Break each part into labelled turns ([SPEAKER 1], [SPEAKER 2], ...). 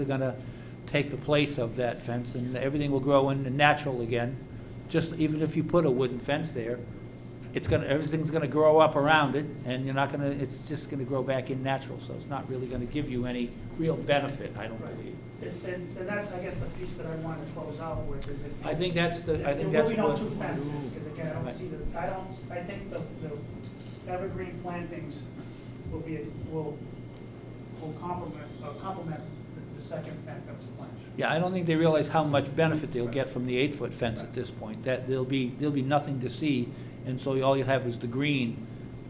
[SPEAKER 1] are going to take the place of that fence, and everything will grow in natural again. Just even if you put a wooden fence there, it's going to, everything's going to grow up around it, and you're not going to, it's just going to grow back in natural, so it's not really going to give you any real benefit, I don't believe.
[SPEAKER 2] And, and and that's, I guess, the piece that I wanted to close out with, is it.
[SPEAKER 1] I think that's the, I think
[SPEAKER 2] There
[SPEAKER 1] that's
[SPEAKER 2] will
[SPEAKER 1] what.
[SPEAKER 2] be no two fences, because again, I don't
[SPEAKER 1] Right.
[SPEAKER 2] see the, I don't, s- I think the, the evergreen plantings will be, will, will complement, uh, complement the- the second fence that was planted.
[SPEAKER 1] Yeah, I don't think they realize how much benefit they'll get from the eight-foot fence at this point. That, there'll be, there'll be nothing to see, and so all you'll have is the green.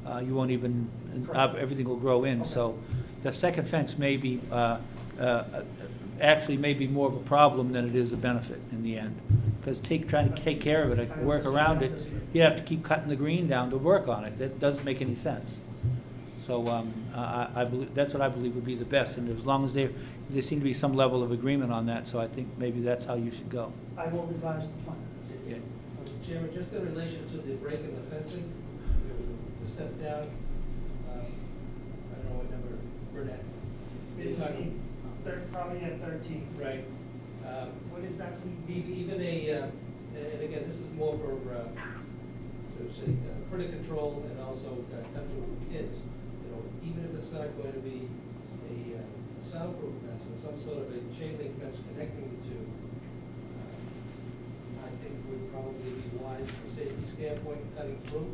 [SPEAKER 1] Uh, You won't even, uh,
[SPEAKER 2] Correct.
[SPEAKER 1] everything will grow in. So the second fence may be, uh, uh, actually may be more of a problem than it is a benefit in the end. Because take, trying to take care of it, like, work around it, you have to keep cutting the green down to work on it. That doesn't make any sense. So um, I I- I believe, that's what I believe would be the best, and as long as there, there seemed to be some level of agreement on that, so I think maybe that's how you should go.
[SPEAKER 2] I will revise the plan.
[SPEAKER 1] Yeah.
[SPEAKER 3] Mr. Chairman, just in relation to the break in the fencing, there was a- the step down, um, I don't know what number, Burnett. You're talking-
[SPEAKER 2] Thir- Probably at thirteen.
[SPEAKER 3] Right. Um,
[SPEAKER 4] What is that?
[SPEAKER 3] e- Even a, uh, and again, this is more for, uh, so to say, uh, credit control and also uh, comfortable for kids. You know, even if it's not going to be a uh, soundproof fence, but some sort of a chain link fence connecting the two, uh, I think would probably be wise from a safety standpoint, cutting through.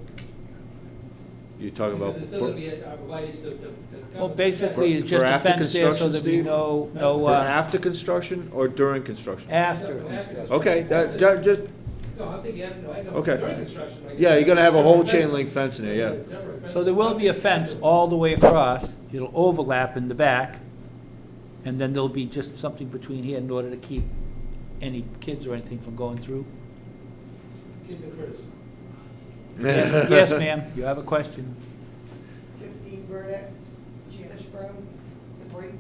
[SPEAKER 5] You're talking about,
[SPEAKER 3] Because there's still going to be a uh, arborvitae to, to- to. cover
[SPEAKER 1] Well,
[SPEAKER 3] the
[SPEAKER 1] basically,
[SPEAKER 3] fence.
[SPEAKER 1] it's just
[SPEAKER 5] For
[SPEAKER 1] a
[SPEAKER 5] after
[SPEAKER 1] fence there so
[SPEAKER 5] construction,
[SPEAKER 1] that we
[SPEAKER 5] Steve?
[SPEAKER 1] know, know,
[SPEAKER 5] for
[SPEAKER 1] uh,
[SPEAKER 5] after construction or during construction?
[SPEAKER 1] after.
[SPEAKER 3] No, after.
[SPEAKER 1] construction.
[SPEAKER 5] Okay, that, that just,
[SPEAKER 3] No, I think you have, no, I know,
[SPEAKER 5] Okay.
[SPEAKER 3] during construction. I guess.
[SPEAKER 5] yeah, you're gonna have a whole chain
[SPEAKER 3] Fence.
[SPEAKER 5] link fence in there, yeah.
[SPEAKER 3] Temporary fence.
[SPEAKER 1] So there will be a fence all the way across, it'll overlap in the back, and then there'll be just something between here in order to keep any kids or anything from going through.
[SPEAKER 3] Kids and critters.
[SPEAKER 1] Yes, yes, ma'am, you have a question.
[SPEAKER 4] Fifteen Burdick, Janice Brown, the break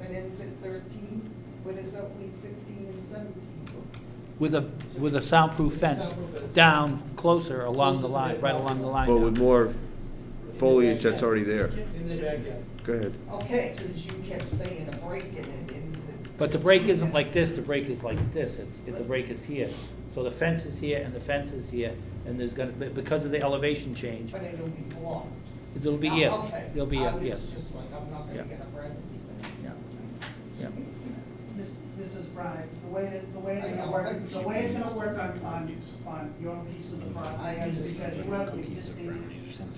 [SPEAKER 4] that ends at thirteen, but it's only fifteen and seventeen.
[SPEAKER 1] With a, with a soundproof fence, down closer along the line, right along the line
[SPEAKER 5] But with
[SPEAKER 1] now.
[SPEAKER 5] more foliage that's already there.
[SPEAKER 3] In the backyard.
[SPEAKER 5] Go ahead.
[SPEAKER 4] Okay, because you kept saying a break and it ends at.
[SPEAKER 1] But the break isn't like this, the break is like this, it's, it- the break is here. So the fence is here and the fence is here, and there's gonna, be- because of the elevation change,
[SPEAKER 4] But it'll be blocked.
[SPEAKER 1] it'll be
[SPEAKER 4] Oh,
[SPEAKER 1] yes,
[SPEAKER 4] okay.
[SPEAKER 1] it'll be
[SPEAKER 4] I
[SPEAKER 1] yes.
[SPEAKER 4] was just like, I'm not
[SPEAKER 1] Yeah.
[SPEAKER 4] gonna get a privacy thing.
[SPEAKER 1] Yeah. Yeah.
[SPEAKER 2] Miss- Mrs. Bryant, the way, that- the way it's
[SPEAKER 4] I
[SPEAKER 2] gonna
[SPEAKER 4] know,
[SPEAKER 2] work,
[SPEAKER 4] I'm
[SPEAKER 2] the way it's gonna work on, on, on your piece of the
[SPEAKER 4] I
[SPEAKER 2] property is
[SPEAKER 4] understand.
[SPEAKER 2] that you have the existing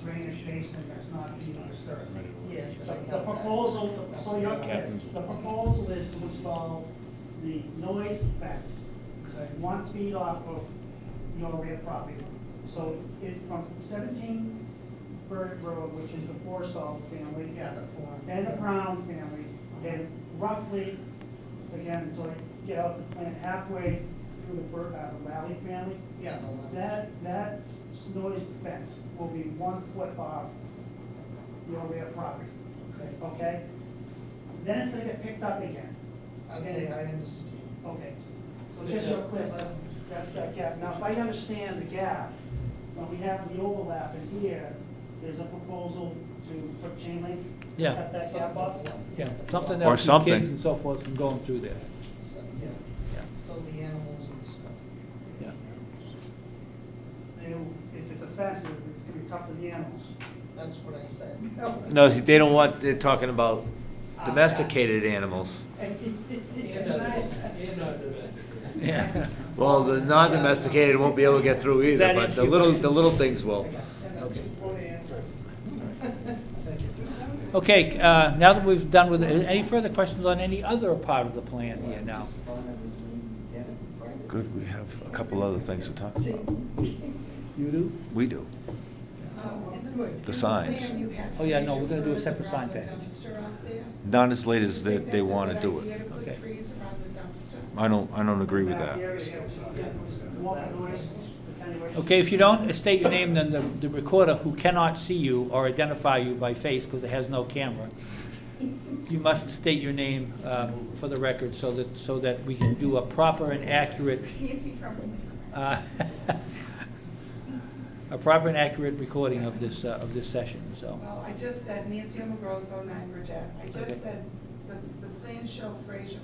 [SPEAKER 2] drainage basin that's not being disturbed.
[SPEAKER 4] Yes.
[SPEAKER 2] So
[SPEAKER 4] I
[SPEAKER 2] the
[SPEAKER 4] got that.
[SPEAKER 2] proposal, so your, the proposal is to install the noise fence one feet off of your rear property. line. So it, from seventeen Burdick Road, which is the Forstall family,
[SPEAKER 4] Yeah, the form.
[SPEAKER 2] and the Brown family, and roughly, again, until you get out the plant halfway through the Bur, uh, the Lally family,
[SPEAKER 4] Yeah, the one.
[SPEAKER 2] that, that noise fence will be one foot off your rear property,
[SPEAKER 4] Okay,
[SPEAKER 2] okay? Then it's gonna get picked up again,
[SPEAKER 4] Okay, I understand.
[SPEAKER 2] okay? So just so clear, so that's, that's that gap. Now, if I understand the gap, when we have the overlap in here, there's a proposal to put chain link,
[SPEAKER 1] Yeah.
[SPEAKER 2] cut that gap up.
[SPEAKER 1] Yeah, something that
[SPEAKER 5] Or
[SPEAKER 1] keep
[SPEAKER 5] something.
[SPEAKER 1] kids and so forth from going through there,
[SPEAKER 4] So, yeah. So the animals and stuff.
[SPEAKER 1] yeah.
[SPEAKER 2] They- If it's offensive, it's gonna be tough for the animals.
[SPEAKER 4] That's what I said.
[SPEAKER 5] No, they don't want, they're talking about domesticated animals.
[SPEAKER 3] And others, and not domestic.
[SPEAKER 1] Yeah.
[SPEAKER 5] Well, the non-domesticated won't be able to get through
[SPEAKER 1] Does that
[SPEAKER 5] either, but
[SPEAKER 1] answer
[SPEAKER 5] the
[SPEAKER 1] your
[SPEAKER 5] little,
[SPEAKER 1] question?
[SPEAKER 5] the little things will.
[SPEAKER 4] And that's before they enter.
[SPEAKER 1] Okay, uh, now that we've done with, any further questions on any other part of the plan here now?
[SPEAKER 5] Good, we have a couple other things to talk about.
[SPEAKER 1] You do?
[SPEAKER 5] We do. The signs.
[SPEAKER 1] Oh, yeah, no, we're gonna do a separate sign package.
[SPEAKER 5] Not as late as
[SPEAKER 1] Okay.
[SPEAKER 5] I don't, I don't agree
[SPEAKER 2] The area here, which is definitely more noise attenuation.
[SPEAKER 1] Okay, if you don't state your name, then the, the recorder, who cannot see you or identify you by face because it has no camera, you must state your name um, for the record so that, so that we can do a proper and accurate, uh, a proper and accurate recording of this, uh, of this session, so.
[SPEAKER 6] Well, I just said Nancy Amoroso, nine Bridget. I
[SPEAKER 1] Okay.
[SPEAKER 6] just said, the, the plans show Fraser